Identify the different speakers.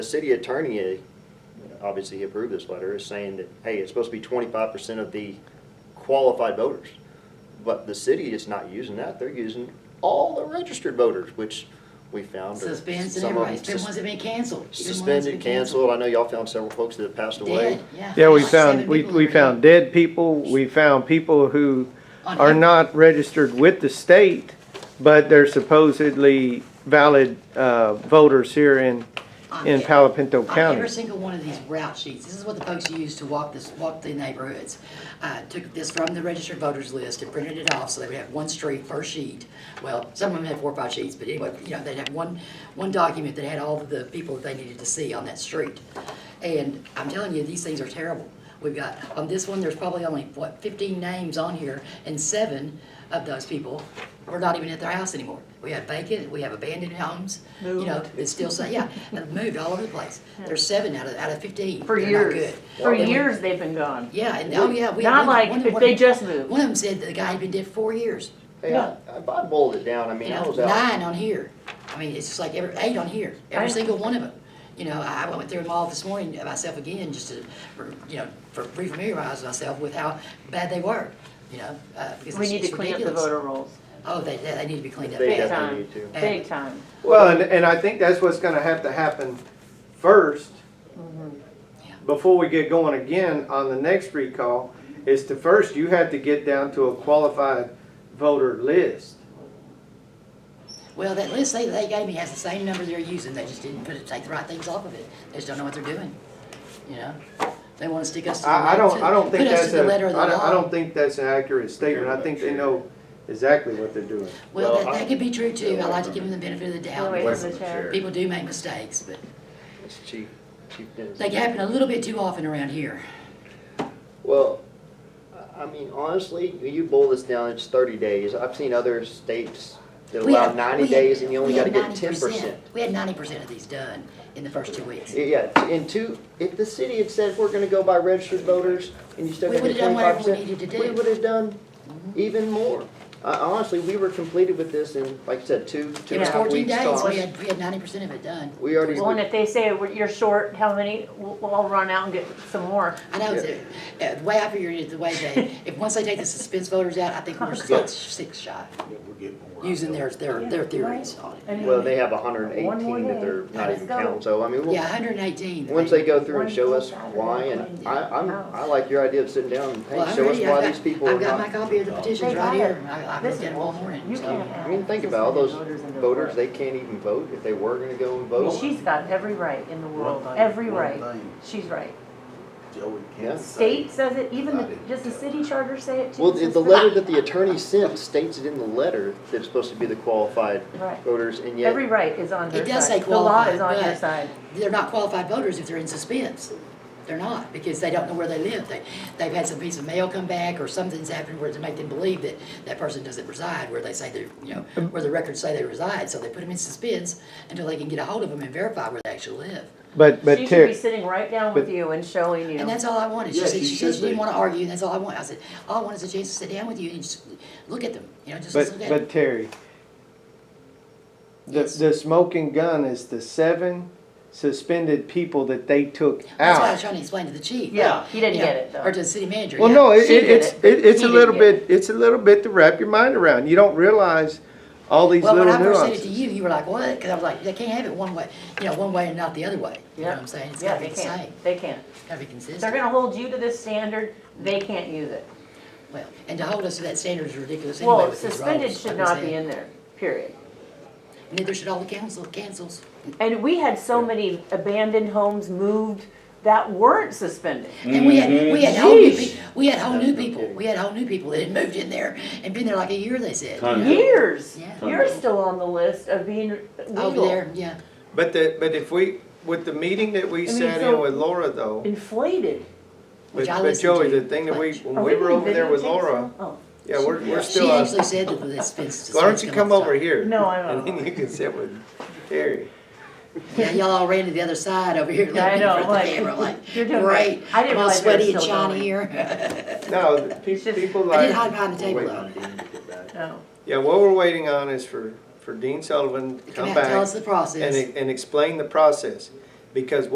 Speaker 1: The city attorney, uh, obviously he approved this letter, is saying that, hey, it's supposed to be twenty-five percent of the qualified voters. But the city is not using that, they're using all the registered voters, which we found are.
Speaker 2: Suspense and
Speaker 1: some of
Speaker 2: everybody,
Speaker 1: them
Speaker 2: it's been ones that been canceled. It's been ones that's been
Speaker 1: Suspended, canceled, I know y'all found several folks that have passed away.
Speaker 2: Dead, yeah.
Speaker 3: Yeah, we
Speaker 2: Like
Speaker 3: found,
Speaker 2: seven
Speaker 3: we,
Speaker 2: people
Speaker 3: we
Speaker 2: were
Speaker 3: found dead people, we found people who
Speaker 2: on
Speaker 3: are
Speaker 2: every-
Speaker 3: not registered with the state, but they're supposedly valid, uh, voters here in,
Speaker 2: on
Speaker 3: in
Speaker 2: e-
Speaker 3: Palo Pinto
Speaker 2: On every
Speaker 3: County.
Speaker 2: single one of these route sheets, this is what the folks use to walk this, walk the neighborhoods. I took this from the registered voters list and printed it off, so they would have one street per sheet. Well, some of them had four or five sheets, but anyway, you know, they'd have one, one document that had all of the people that they needed to see on that street. And I'm telling you, these things are terrible. We've got, on this one, there's probably only, what, fifteen names on here, and seven of those people were not even at their house anymore. We have vacant, we have abandoned homes, you know, it's still, say- yeah, and moved all over the place. There's seven out of, out of fifteen.
Speaker 4: For
Speaker 2: They're not
Speaker 4: years,
Speaker 2: good.
Speaker 4: for
Speaker 2: Then we-
Speaker 4: years they've been gone.
Speaker 2: Yeah, and, oh, yeah. we-
Speaker 4: Not
Speaker 2: one-
Speaker 4: like
Speaker 2: one-
Speaker 4: if
Speaker 2: one-
Speaker 4: they just moved.
Speaker 2: One of them said the guy had been dead four years,
Speaker 1: Hey, I, if I boiled it down, I mean,
Speaker 2: you
Speaker 1: I
Speaker 2: know,
Speaker 1: was out,
Speaker 2: nine on here. I mean, it's just like every, eight on here, every
Speaker 4: Right.
Speaker 2: single one of them. You know, I, I went through them all this morning myself again, just to, for, you know, for, re-familiarize myself with how bad they were, you know, uh, because
Speaker 4: We
Speaker 2: it's-
Speaker 4: need to
Speaker 2: it's
Speaker 4: clean up the
Speaker 2: ridiculous.
Speaker 4: voter rolls,
Speaker 2: Oh, they, they they need to be cleaned up.
Speaker 1: They
Speaker 2: big
Speaker 4: big
Speaker 1: definitely
Speaker 2: time.
Speaker 4: time,
Speaker 1: need to.
Speaker 4: big time.
Speaker 3: Well, and, and I think that's what's gonna have to happen first,
Speaker 2: Yeah.
Speaker 3: before we get going again on the next recall, is to first, you had to get down to a qualified voter list.
Speaker 2: Well, that list they, they gave me has the same number they're using, they just didn't put it, take the right things off of it, they just don't know what they're doing, you know? They wanna stick us to the.
Speaker 3: I, I don't, I don't think
Speaker 2: Put us
Speaker 3: that's
Speaker 2: to the
Speaker 3: a,
Speaker 2: letter
Speaker 3: I
Speaker 2: of the
Speaker 3: don't, I
Speaker 2: law.
Speaker 3: don't think that's an accurate statement. I think they know exactly what they're doing.
Speaker 2: Well,
Speaker 1: Well,
Speaker 2: that,
Speaker 1: I-
Speaker 2: that could be true too, I like to give them the benefit of the
Speaker 4: Wait
Speaker 2: doubt,
Speaker 4: for the chair.
Speaker 2: people do make mistakes, but
Speaker 1: it's chief, chief Dennis.
Speaker 2: they happen a little bit too often around here.
Speaker 1: Well, I- I mean, honestly, you boil this down, it's thirty days. I've seen other states that
Speaker 2: We
Speaker 1: allow
Speaker 2: had-
Speaker 1: ninety
Speaker 2: we had-
Speaker 1: days and you only
Speaker 2: we
Speaker 1: gotta
Speaker 2: had
Speaker 1: get ten
Speaker 2: 90%.
Speaker 1: percent.
Speaker 2: We had ninety percent of these done in the first two weeks.
Speaker 1: Yeah, and two, if the city had said, we're gonna go by registered voters, and you still
Speaker 2: We
Speaker 1: gotta get
Speaker 2: would've done
Speaker 1: twenty-five
Speaker 2: whatever we
Speaker 1: percent.
Speaker 2: needed to
Speaker 1: We
Speaker 2: do. Mm-hmm.
Speaker 1: would've done even more. Uh, honestly, we were completed with this in, like you said, two, two and
Speaker 2: It
Speaker 1: a
Speaker 2: was
Speaker 1: half
Speaker 2: fourteen
Speaker 1: weeks
Speaker 2: days, we
Speaker 1: tops.
Speaker 2: had, we had ninety percent of it done.
Speaker 1: We already,
Speaker 4: Well, and if they say "Well, you're short, how many, we'll, we'll all run out and get some more.
Speaker 2: I know, it's- uh, the way I figured it, the way they, if, once they take the suspense voters out, I think we're six, six shy, using their, their, their theories on it.
Speaker 4: And
Speaker 1: well, they have hundred and
Speaker 4: One more
Speaker 1: eighteen that
Speaker 4: day.
Speaker 1: they're not
Speaker 4: Let's
Speaker 1: even
Speaker 4: go.
Speaker 1: counting, so I mean, we'll-
Speaker 2: Yeah, hundred and eighteen.
Speaker 1: Once they go through and show us why, and I, I'm, I like your idea of sitting down and hey,
Speaker 2: Well, I'm
Speaker 1: show us
Speaker 2: ready. I've
Speaker 1: why
Speaker 2: got-
Speaker 1: these people are
Speaker 2: I've got my
Speaker 1: not.
Speaker 2: copy of the petitions
Speaker 4: They got
Speaker 2: right here,
Speaker 4: it.
Speaker 2: I, I
Speaker 4: This
Speaker 2: looked at
Speaker 4: is-
Speaker 2: them all morning,
Speaker 4: you
Speaker 2: so.
Speaker 4: can't
Speaker 1: um, I mean, think about all those voters, they can't even vote if they were gonna go and vote.
Speaker 4: She's got every right in the world,
Speaker 5: One thing-
Speaker 4: every
Speaker 5: one
Speaker 4: right.
Speaker 5: thing
Speaker 4: She's right.
Speaker 5: Joey
Speaker 1: Yeah.
Speaker 5: can't say.
Speaker 4: State says it, even the,
Speaker 5: Not
Speaker 4: just the city charter say it too.
Speaker 1: Well,
Speaker 4: It's
Speaker 1: the
Speaker 4: just
Speaker 1: the
Speaker 4: for-
Speaker 1: letter that the attorney sent states it in the letter that it's supposed to be the qualified
Speaker 4: Right.
Speaker 1: voters, and yet,
Speaker 4: Every right is on their
Speaker 2: It does say
Speaker 4: side. The law
Speaker 2: qualified,
Speaker 4: is on your
Speaker 2: but
Speaker 4: side.
Speaker 2: they're not qualified voters if they're in suspense. They're not, because they don't know where they live. They, they've had some piece of mail come back or something's happened where to make them believe that that person doesn't reside where they say they, you know,
Speaker 3: Um,
Speaker 2: where the records say they reside. So they put them in suspense until they can get a hold of them and verify where they actually live.
Speaker 3: But, but
Speaker 4: She should be
Speaker 3: Terry,
Speaker 4: sitting right down with
Speaker 3: but-
Speaker 4: you and showing you.
Speaker 2: And that's all I wanted. She
Speaker 5: Yeah,
Speaker 2: said,
Speaker 5: she
Speaker 2: she said she
Speaker 5: should
Speaker 2: didn't
Speaker 5: be.
Speaker 2: want to argue, and that's all I want. I said, all I want is a chance to sit down with you and just look at them, you know, just
Speaker 3: but,
Speaker 2: look at them.
Speaker 3: but Terry, the,
Speaker 2: Yes.
Speaker 3: the smoking gun is the seven suspended people that they took
Speaker 2: That's what I was
Speaker 3: out.
Speaker 2: trying to explain to the chief.
Speaker 4: Yeah, he didn't
Speaker 2: you know,
Speaker 4: get it, though.
Speaker 2: Or to the city manager.
Speaker 3: Well,
Speaker 2: yeah.
Speaker 3: no, it,
Speaker 4: She
Speaker 3: it-
Speaker 4: did
Speaker 3: it's,
Speaker 4: it,
Speaker 3: it,
Speaker 4: but
Speaker 3: it's
Speaker 4: he
Speaker 3: a
Speaker 4: didn't
Speaker 3: little
Speaker 4: get
Speaker 3: bit, it's a little bit to wrap your mind around. You don't realize all these
Speaker 2: Well,
Speaker 3: little
Speaker 2: when I first said it to
Speaker 3: nuances.
Speaker 2: you, you were like, what? Because I was like, they can't have it one way, you know, one way and not the other way. You know what I'm saying? It's
Speaker 4: Yeah,
Speaker 2: gotta be
Speaker 4: they
Speaker 2: the same.
Speaker 4: can't, they can't.
Speaker 2: It's gotta be consistent.
Speaker 4: They're gonna hold you to this standard, they can't use it.
Speaker 2: Well, and to hold us to that standard is ridiculous anyway
Speaker 4: Well,
Speaker 2: with these
Speaker 4: suspended
Speaker 2: roles,
Speaker 4: should
Speaker 2: like I
Speaker 4: not
Speaker 2: said.
Speaker 4: be in there, period.
Speaker 2: Neither should all the council, cancels.
Speaker 4: And we had so many abandoned homes moved that weren't suspended.
Speaker 2: And we
Speaker 3: Mm-hmm.
Speaker 2: had, we had whole new,
Speaker 4: Jeez.
Speaker 2: pe- we had whole new people, we had whole new people that had moved in there and been there like a year, they said.
Speaker 5: Tons.
Speaker 4: Years,
Speaker 2: Oh, Yeah.
Speaker 4: you're still on the list of being
Speaker 2: Over
Speaker 4: legal,
Speaker 2: there, yeah.
Speaker 3: But the, but if we, with the meeting that we
Speaker 4: I mean,
Speaker 3: sat
Speaker 4: so-
Speaker 3: in with Laura though,
Speaker 4: inflated.
Speaker 3: but
Speaker 2: Which I
Speaker 3: but
Speaker 2: listened to.
Speaker 3: Joey, the thing that we,
Speaker 4: Are
Speaker 3: when we were
Speaker 4: doing
Speaker 3: over there with
Speaker 4: videotapes
Speaker 3: Laura,
Speaker 4: now? Oh,
Speaker 3: yeah, we're, we're
Speaker 2: She
Speaker 3: still on.
Speaker 2: actually said that the suspense.
Speaker 3: Why don't you come over here?
Speaker 4: No, I don't.
Speaker 3: And then you can sit with Terry.
Speaker 2: Yeah, y'all all ran to the other side over here.
Speaker 4: Yeah, I
Speaker 2: looking
Speaker 4: know,
Speaker 2: for the
Speaker 4: like,
Speaker 2: camera, like,
Speaker 4: you're doing
Speaker 2: great.
Speaker 4: great. I didn't
Speaker 2: I'm all
Speaker 4: realize they were
Speaker 2: sweaty and
Speaker 4: still
Speaker 2: shiny
Speaker 4: going.
Speaker 2: here.
Speaker 3: No, the pe-
Speaker 4: It's just-
Speaker 3: people
Speaker 2: I
Speaker 3: like.
Speaker 2: did hide behind the table
Speaker 5: Wait
Speaker 2: though.
Speaker 5: on Dean to get back.
Speaker 4: no.
Speaker 3: Yeah, what we're waiting on is for, for Dean Sullivan to
Speaker 2: Come
Speaker 3: come
Speaker 2: out, tell us
Speaker 3: back
Speaker 2: the
Speaker 3: and,
Speaker 2: process.
Speaker 3: e- and explain the process. Because